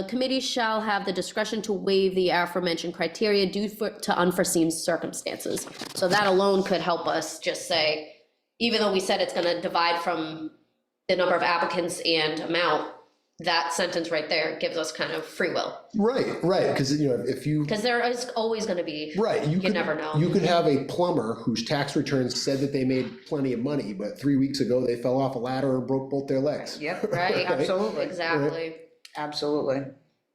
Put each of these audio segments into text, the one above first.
The committee shall have the discretion to waive the aforementioned criteria due for- to unforeseen circumstances. So that alone could help us just say, even though we said it's gonna divide from the number of applicants and amount, that sentence right there gives us kind of free will, Right, right, because you know, if you, because there is always gonna be. right, you You could, never know. you could have a plumber whose tax returns said that they made plenty of money, but three weeks ago they fell off a ladder and broke both their legs. Yep, Right? Absolutely. Exactly. absolutely.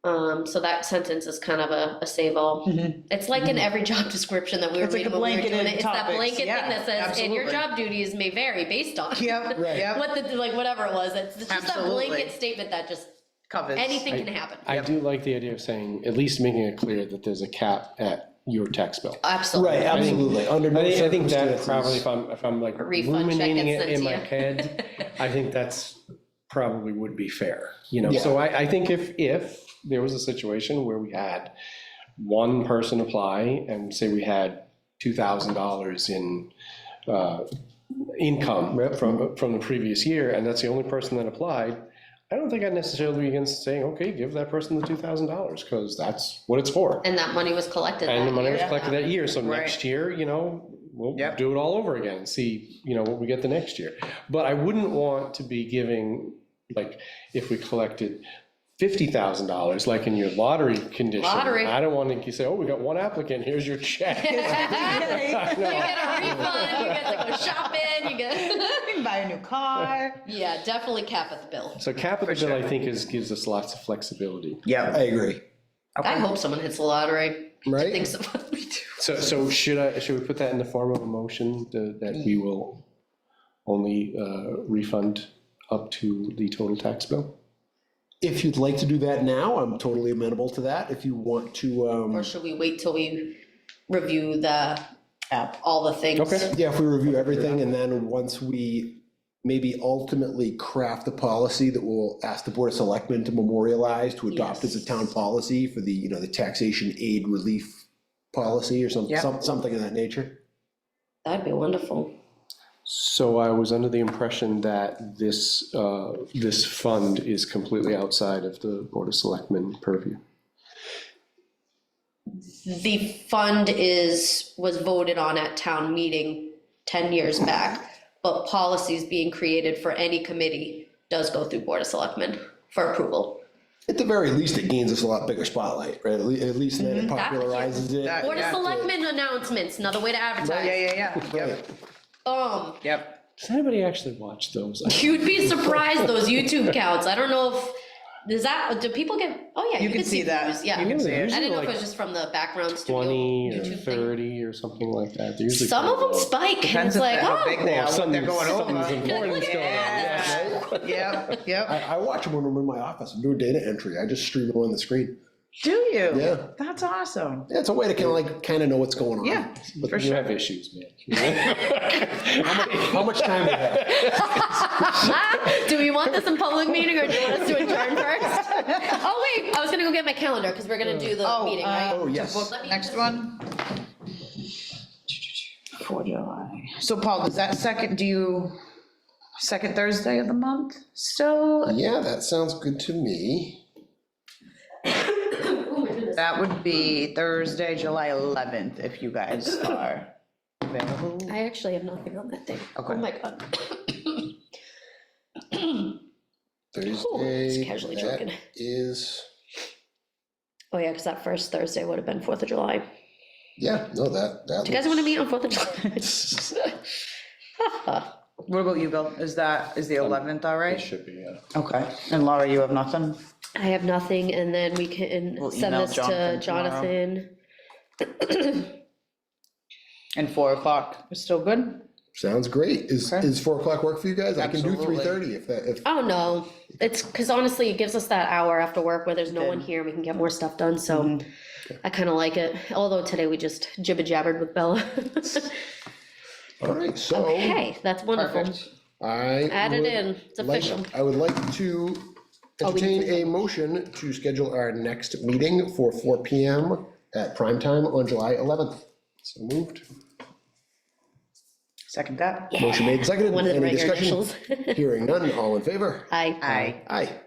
Um, so that sentence is kind of a, a save all. It's like in every job description that we were Mm-hmm. It's like reading when we were a blanket doing in it. It's that topics, blanket thing yeah, that says, and your absolutely. job duties may vary based on. Yep, Right. yep, What the, like, whatever it was, it's it's just that Absolutely. blanket statement that just, covers. anything can happen. I do like the idea of saying, at least making it clear that there's a cap at your tax bill. Absolutely. I think- Under I no think, I think that circumstances. probably, if I'm, if I'm like refund check ruminating gets it sent in my to you. head, I think that's probably would be fair, you know? Yeah. So I, I think if, if there was a situation where we had one person apply and say we had two thousand dollars in, uh, income from, from the previous year, and that's the only person that applied, I don't think I'd necessarily be against saying, okay, give that person the two thousand dollars, because that's what it's for. And that money was collected. And the that money was year. collected that year, so Right. next year, you know, we'll Yep. do it all over again, and see, you know, what we get the next year. But I wouldn't want to be giving, like, if we collected fifty thousand dollars, like in your lottery condition. Lottery. I don't want to say, oh, we got one applicant, here's your check. You I You get a know. refund, you get to go shopping, you get, can buy a new car. yeah, definitely cap at the bill. So capital bill, I think, is, gives us lots of flexibility. I Yep. agree, I hope someone hits the lottery. I think right? so. So, so should I, should we put that in the form of a motion to- that we will only uh, refund up to the total tax bill? If you'd like to do that now, I'm totally amenable to that. If you want to, Or um, should we wait till we review the, App. all the things? Okay. yeah, if we review everything and then once we maybe ultimately craft the policy that we'll ask the Board of Selectmen to memorialize, to adopt as a town policy for the, you know, the taxation aid relief policy or some, Yeah. some- something of that nature. That'd be wonderful. So I was under the impression that this, uh, this fund is completely outside of the Board of Selectmen purview. The fund is, was voted on at town meeting ten years back, but policies being created for any committee does go through Board of Selectmen for approval. At the very least, it gains us a lot bigger spotlight, right? At le- at least then it Mm-hmm. popularizes it. That- Board of Yeah. Selectmen announcements, another way to Yeah, advertise. yeah, yeah, Right. yep, Um, yep. Does anybody actually watch those? you'd be surprised, those YouTube counts, I don't know if, does that, do people get, oh yeah. You can see that. views, Yeah. You can see it. I Usually didn't know if it like was just from the background studio. Twenty or YouTube thing. thirty or something like that. They're usually Some of pretty them low. spike, and it's Depends if like, they're how big oh, they are, what they're something's- going something's over. important is going on. Yeah. Yep, yep. I, I watch them when I'm in my office, I'm doing data entry, I just stream it on the screen. Do you? Yeah. That's awesome. Yeah, it's a way to kind of like, kind of know what's going on. Yeah, for But you sure. have issues, man. How much time do you have? oh. do we want this in public meeting or do you want us to adjourn first? Oh, wait, I was gonna go get my calendar, because we're gonna do the Oh, meeting, uh, right? Oh, yes. to book Next one. For July. So Paul, does that second, do you, second Thursday of the month still? Yeah, that sounds good to me. oh That would be Thursday, July 11th, if you guys are available. I actually have nothing on that day. Oh, Okay. my God. Thursday. just casually that joking. Is, Oh, yeah, because that first Thursday would have been Fourth of July. yeah, no, that, that. Do you guys want to meet on Fourth of July? What about you, Bill? Is that, is the 11th all It right? should be, yeah. Okay, and Laura, you have nothing? I have nothing, and then we can We'll send email this to Jonathan tomorrow. Jonathan. And 4 o'clock, is still good? Sounds great. Is, Okay. is four o'clock work for you guys? I can do Absolutely. three thirty if that, if, Oh, no, it's, because honestly, it gives us that hour after work where there's no one Good. here, we can get more stuff done, so Mm-hmm. I kind of like it, although today we just jibber jabbered with Bella. all right, so. Okay, that's wonderful. Perfect. I. Add it would in, it's like- official. I would like to Oh, we entertain need a motion to schedule our next meeting for four P M at prime time on July eleventh. So moved. Second that? Motion made, seconded. One of the Any regular discussion? initials. Hearing none, all in favor? Aye. Aye. Aye.